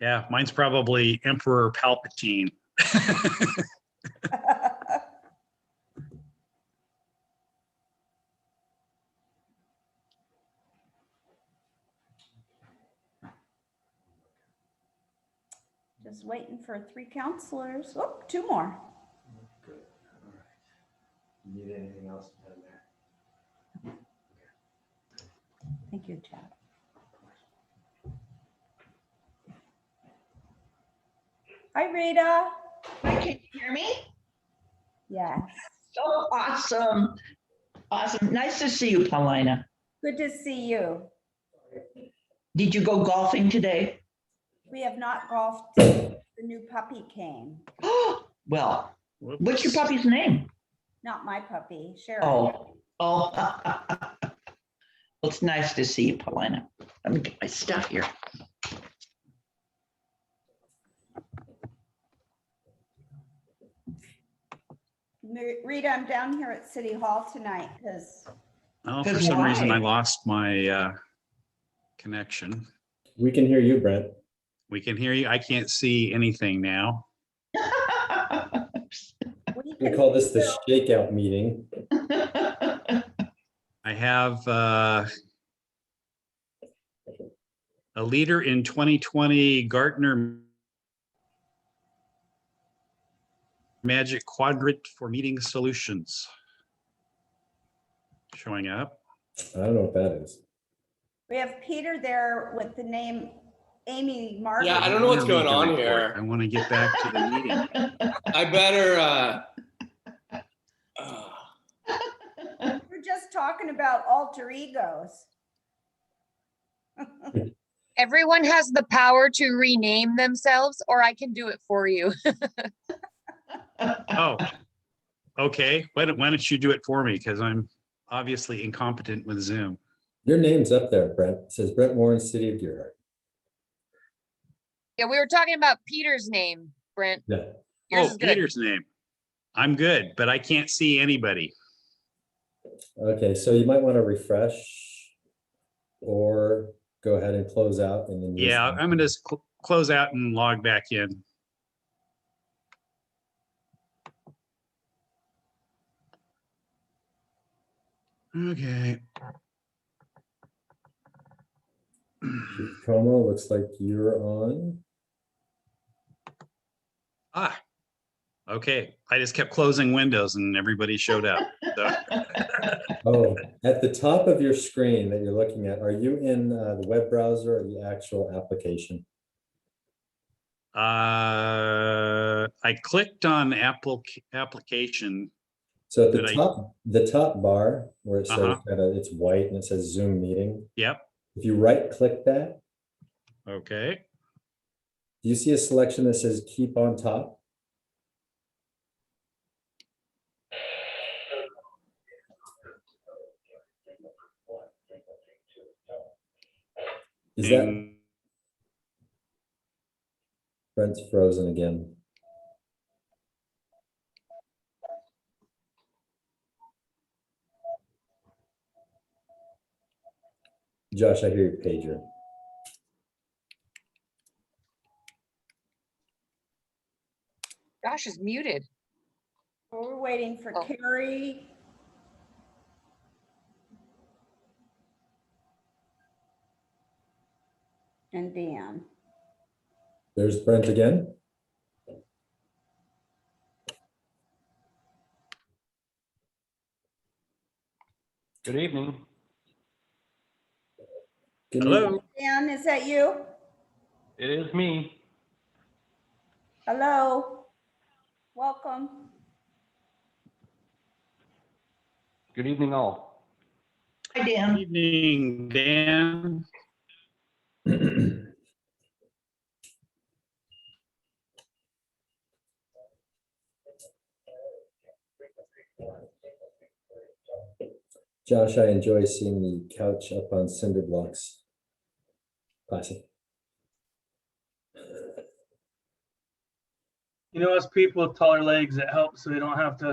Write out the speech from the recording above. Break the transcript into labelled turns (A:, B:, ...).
A: Yeah, mine's probably Emperor Palpatine.
B: Just waiting for three counselors. Oh, two more.
C: Good, all right. Need anything else down there?
B: Thank you, Chad. Hi, Rita.
D: Hi, can you hear me?
B: Yes.
D: So awesome. Awesome. Nice to see you, Paulina.
B: Good to see you.
D: Did you go golfing today?
B: We have not golfed. since The new puppy came.
D: Well,
A: Whoops.
D: what's your puppy's name?
B: Not my puppy, Cheryl.
D: Oh, oh. Well, it's nice to see you, Paulina. Let me get my stuff here.
B: Ma- Rita, I'm down here at City Hall tonight because
A: Oh,
D: Good
A: for some reason,
D: why?
A: I lost my uh, connection.
C: We can hear you, Brent.
A: We can hear you. I can't see anything now.
B: we
C: We
B: can
C: call this the shakeout meeting.
A: I have uh, a leader in 2020 Gartner Magic Quadrant for Meeting Solutions showing up.
C: I don't know what that is.
B: We have Peter there with the name Amy Mark.
E: Yeah, I don't know what's
A: wanna read
E: going
A: the
E: on
A: report.
E: here.
A: I want to get back to the meeting.
E: I better. Uh, uh,
B: We're just talking about alter egos.
F: Everyone has the power to rename themselves, or I can do it for you.
A: Oh, okay. Why don't, why don't you do it for me? Because I'm obviously incompetent with Zoom.
C: Your name's up there, Brent. It says Brent Warren, City of Deer Heart.
F: Yeah, we were talking about Peter's name, Brent.
C: Yeah.
F: Yours
A: Oh,
F: is good.
A: Peter's name. I'm good, but I can't see anybody.
C: Okay, so you might want to refresh or go ahead and close out and then. use
A: Yeah,
C: the-
A: I'm gonna just cl- close out and log back in. Okay,
C: Chief Como, looks like you're on.
A: ah, okay. I just kept closing windows and everybody showed up. So,
C: Oh, at the top of your screen that you're looking at, are you in uh, the web browser or the actual application?
A: uh, I clicked on Apple, application.
C: So at the
A: Did I-
C: top, the top bar where it says
A: Uh-huh.
C: kind of, it's white and it says Zoom meeting.
A: Yep,
C: If you right click that,
A: okay.
C: do you see a selection that says keep on top? Is that
A: And-
C: Brent's frozen again? Josh, I hear your pager.
F: Josh is muted.
B: We're waiting for
F: Oh.
B: Carrie. And Dan.
C: There's Brent again.
G: Good evening.
C: Can you-
A: Hello,
B: Dan, is that you?
G: It is me.
B: Hello? Welcome.
G: Good evening, all.
D: Hi, Dan.
A: evening, Dan.
C: Josh, I enjoy seeing the couch up on cinder blocks. Classic.
H: You know, us people with taller legs, it helps so we don't have to